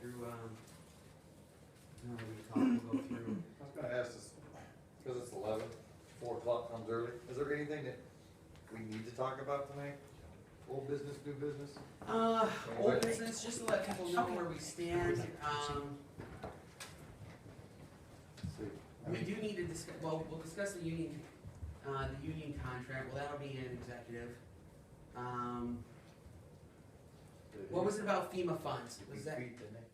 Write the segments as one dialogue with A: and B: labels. A: through, um, no, we talk, we'll go through,
B: I was gonna ask this, because it's eleven, four o'clock comes early, is there anything that we need to talk about tonight? Old business, new business?
A: Uh, old
B: Okay.
A: business, just to let people know where we stand, um,
B: See, I
A: we
B: mean,
A: do need to discuss, well, we'll discuss the union, uh, the union contract, well, that'll be in executive. Um, what was it about FEMA funds,
B: did we
A: was that
B: beat the neck?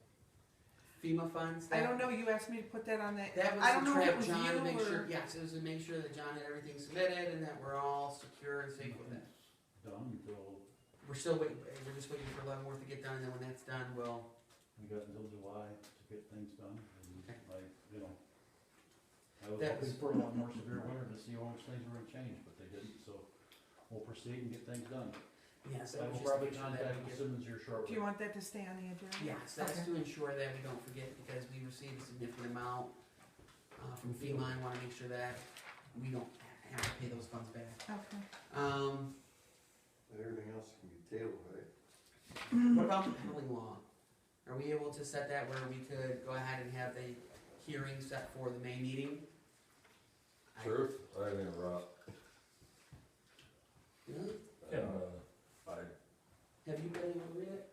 A: FEMA funds?
C: I
A: That-
C: don't know, you asked me to put that on that.
A: That was
C: I don't
A: the
C: know if
A: trip,
C: it was
A: John, to make
C: you
A: sure,
C: or.
A: yes, it was to make sure that John had everything submitted and that we're all secure and safe with it.
D: done until,
A: We're still waiting, we're just waiting for Leavenworth to get done, and then when that's done, we'll,
D: we got until July to get things done, and
A: Okay.
D: like, you know. I was
A: That
D: hoping
A: was-
D: for a lot more severe winter to see how much things were gonna change, but they didn't, so we'll proceed and get things done.
A: yes, that
D: I
A: was just
D: will
A: to
D: probably
A: make sure that
D: contact
A: we
D: the
A: get
D: Simmons here
C: Do
D: shortly.
C: you want that to stay on the agenda?
A: Yes, that's
C: Okay.
A: to ensure that we don't forget, because we received a significant amount uh, from FEMA, I wanna make sure that we don't ha- have to pay those funds back.
C: Okay.
A: Um,
B: But Everything else can be tabled, right?
A: what about the peddling law? Are we able to set that where we could go ahead and have the hearing set for the May meeting? I-
E: Truth, I think Rob,
A: Really?
E: uh, I,
A: Have you been able to read it?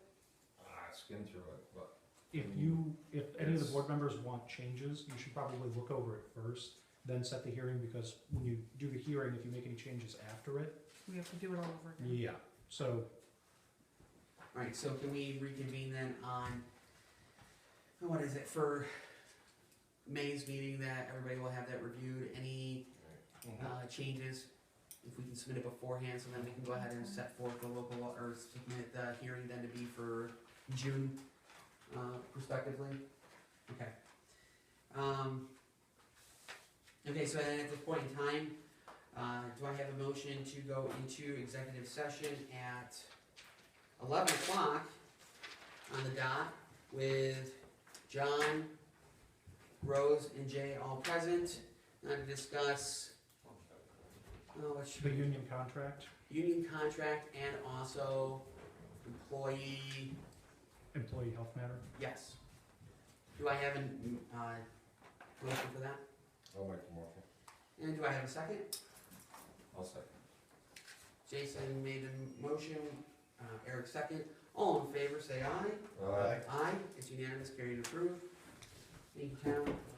E: I skimmed through it, but
F: If
E: Mm.
F: you, if any of the
E: Yes.
F: board members want changes, you should probably look over it first, then set the hearing, because when you do the hearing, if you make any changes after it,
C: We have to do it all over again.
F: yeah, so
A: Alright, so can we reconvene then on, what is it, for May's meeting that everybody will have that reviewed, any uh, changes, if we can submit it beforehand, so then we can go ahead and set forth the local, law- or submit the hearing then to be for June, uh, prospectively. Okay. Um, okay, so then at this point in time, uh, do I have a motion to go into executive session at eleven o'clock on the dot with John, Rose, and Jay all present, uh, to discuss Oh, what should
F: the
A: we-
F: union contract,
A: union contract and also employee,
F: employee health matter.
A: yes. Do I have a, uh, motion for that?
E: I'll make the motion.
A: And do I have a second?
E: I'll second.
A: Jason made the motion, uh, Eric second. All in favor, say aye.
E: Aye.
A: Aye, it's unanimous, carried and approved. Thank you, Tom.